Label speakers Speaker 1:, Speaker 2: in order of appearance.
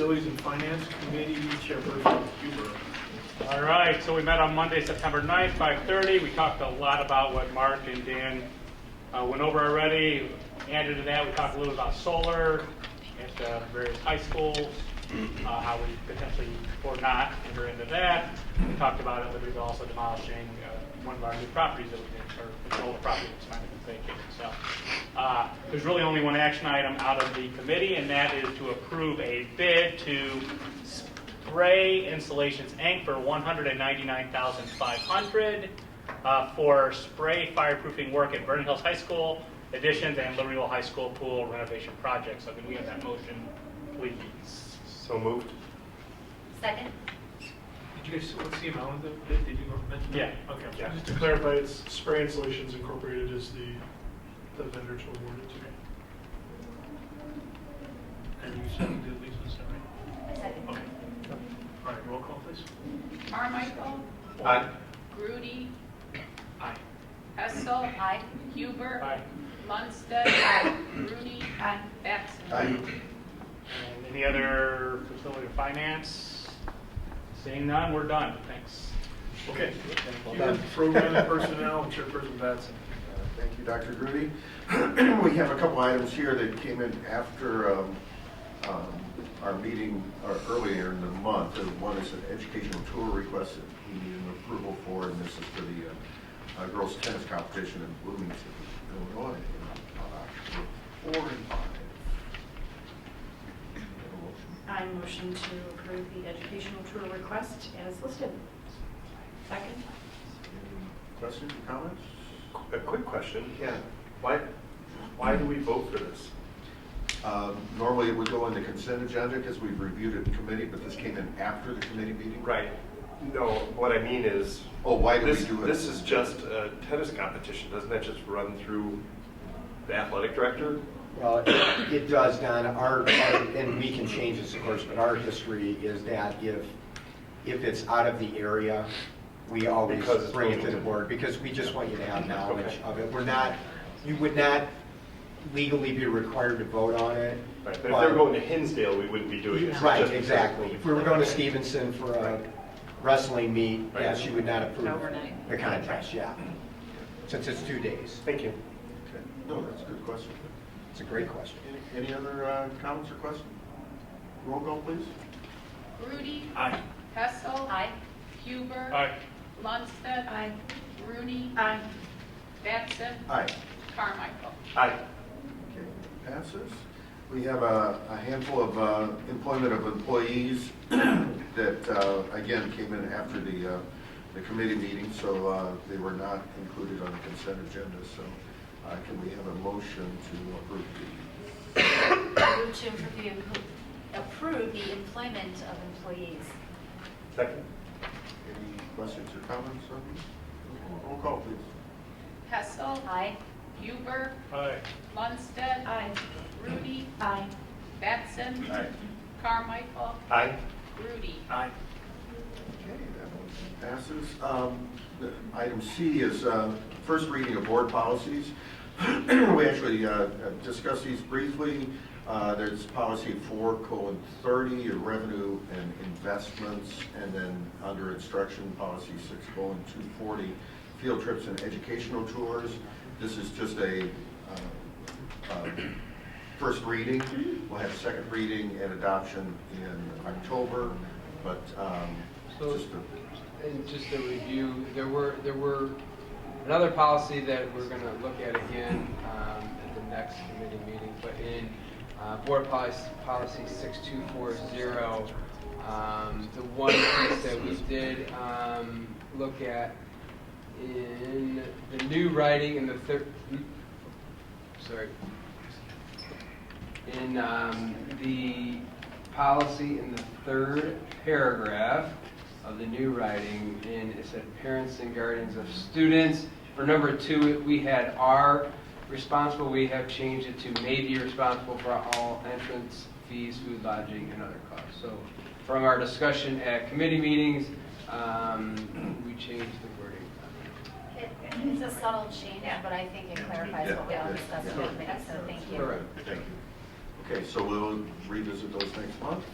Speaker 1: Facilities and Finance Committee Chairperson Huber.
Speaker 2: All right, so we met on Monday, September 9th, 5:30. We talked a lot about what Mark and Dan uh, went over already. Added to that, we talked a little about solar at the various high schools, uh, how we potentially, or not, enter into that. We talked about it, but we also demolishing uh, one of our new properties that we did, or an old property that's kind of vacated. So uh, there's really only one action item out of the committee, and that is to approve a bid to Spray Installations Inc. for one hundred and ninety-nine thousand five hundred uh, for spray fireproofing work at Vernon Hills High School additions and Libertyville High School pool renovation projects. So can we have that motion, please?
Speaker 3: So moved.
Speaker 4: Second?
Speaker 1: Did you guys, what's the amount of the, bid? did you mention? that?
Speaker 2: Yeah.
Speaker 1: Okay.
Speaker 2: Yeah.
Speaker 5: Just to clarify, it's Spray Installations Incorporated is the, the vendor to award it to.
Speaker 1: And you seconded Lisa, is that right?
Speaker 4: Second.
Speaker 1: Okay. All right, roll call please.
Speaker 6: Carmichael.
Speaker 3: Aye.
Speaker 6: Grudy.
Speaker 1: Aye.
Speaker 6: Hessel.
Speaker 4: Aye.
Speaker 6: Huber.
Speaker 2: Aye.
Speaker 6: Munstead. Aye. Grudy. Aye. Batson.
Speaker 2: And any other facility or finance? Seeing none, we're done. Thanks.
Speaker 1: Okay.
Speaker 3: Well
Speaker 1: Huber,
Speaker 3: done.
Speaker 1: Program Personnel Chairperson Batson.
Speaker 7: Uh, Thank you, Dr. Grudy. We have a couple items here that came in after um, um, our meeting uh, earlier in the month. Uh, One is an educational tour request that we need an approval for, and this is for the uh, uh, girls' tennis competition in Bloomington, Illinois, on October 4 and 5. Have a motion?
Speaker 8: I motion to approve the educational tour request as listed. Second?
Speaker 7: Any Questions or comments?
Speaker 3: A quick question.
Speaker 7: Yeah.
Speaker 3: Why, why do we vote for this?
Speaker 7: Um, Normally, it would go in the consent agenda because we've reviewed it in committee, but this came in after the committee meeting?
Speaker 3: Right. No, what I mean is,
Speaker 7: Oh, why do we
Speaker 3: this,
Speaker 7: do it?
Speaker 3: this is just a tennis competition. Doesn't that just run through the athletic director?
Speaker 9: Well, it it does, Don. Our, our- and we can change this, of course, but our history is that if, if it's out of the area, we always
Speaker 3: Because it's
Speaker 9: bring it to the
Speaker 3: moving.
Speaker 9: board, because we just want you to have knowledge
Speaker 3: Okay.
Speaker 9: of it. We're not, you would not legally be required to vote on it.
Speaker 3: Right, but if they were going to Hinsdale, we wouldn't be doing this.
Speaker 9: Right,
Speaker 3: Just-
Speaker 9: exactly. If we were going to Stevenson for a wrestling meet, yes, you would not approve
Speaker 6: Overnight.
Speaker 9: the contest, yeah. Since it's two days.
Speaker 3: Thank you.
Speaker 7: Okay. No, that's a good question.
Speaker 9: It's a great question.
Speaker 7: Any- Any other uh, comments or questions? Roll call, please.
Speaker 6: Grudy.
Speaker 1: Aye.
Speaker 6: Hessel.
Speaker 4: Aye.
Speaker 6: Huber.
Speaker 2: All right,
Speaker 6: Munstead.
Speaker 8: Aye.
Speaker 6: Grudy.
Speaker 8: Aye.
Speaker 6: Batson.
Speaker 7: Aye.
Speaker 6: Carmichael.
Speaker 3: Aye.
Speaker 7: Okay, passes. We have a a handful of uh, employment of employees that, uh, again, came in after the, uh, the committee meeting, so uh, they were not included on the consent agenda, so uh, can we have a motion to approve the?
Speaker 4: Move to approve the- approve the employment of employees.
Speaker 3: Second?
Speaker 7: Any questions or comments on these? Roll call, please.
Speaker 6: Hessel.
Speaker 4: Aye.
Speaker 6: Huber.
Speaker 2: all right.
Speaker 6: Munstead.
Speaker 8: Aye.
Speaker 6: Grudy.
Speaker 8: Aye.
Speaker 6: Batson.
Speaker 7: Aye.
Speaker 6: Carmichael.
Speaker 3: Aye.
Speaker 6: Grudy.
Speaker 1: Aye.
Speaker 7: Okay, that motion passes. Um, the- Item C is uh, first reading of board policies. We actually uh, discussed these briefly. Uh, There's policy four colon thirty, your revenue and investments, and then under instruction, policy six colon two forty, field trips and educational tours. This is just a uh, uh, first reading. We'll have second reading and adoption in October, but um,
Speaker 10: So-
Speaker 7: just a-
Speaker 10: And just a review, there were, there were another policy that we're going to look at again um, at the next committee meeting, but in uh, board policy, policy 6240, um, the one piece that we did um, look at in the new writing in the third, sorry, in um, the policy in the third paragraph of the new writing, and it said parents and guardians of students. For number two, we had are responsible, we have changed it to may be responsible for all entrance fees, food, lodging, and other costs. So from our discussion at committee meetings, um, we changed the wording.
Speaker 4: It- It's a subtle change, but I think it clarifies what we all discussed in the minutes, so thank you.
Speaker 10: Correct.
Speaker 7: thank you. Okay, so we'll revisit those next month.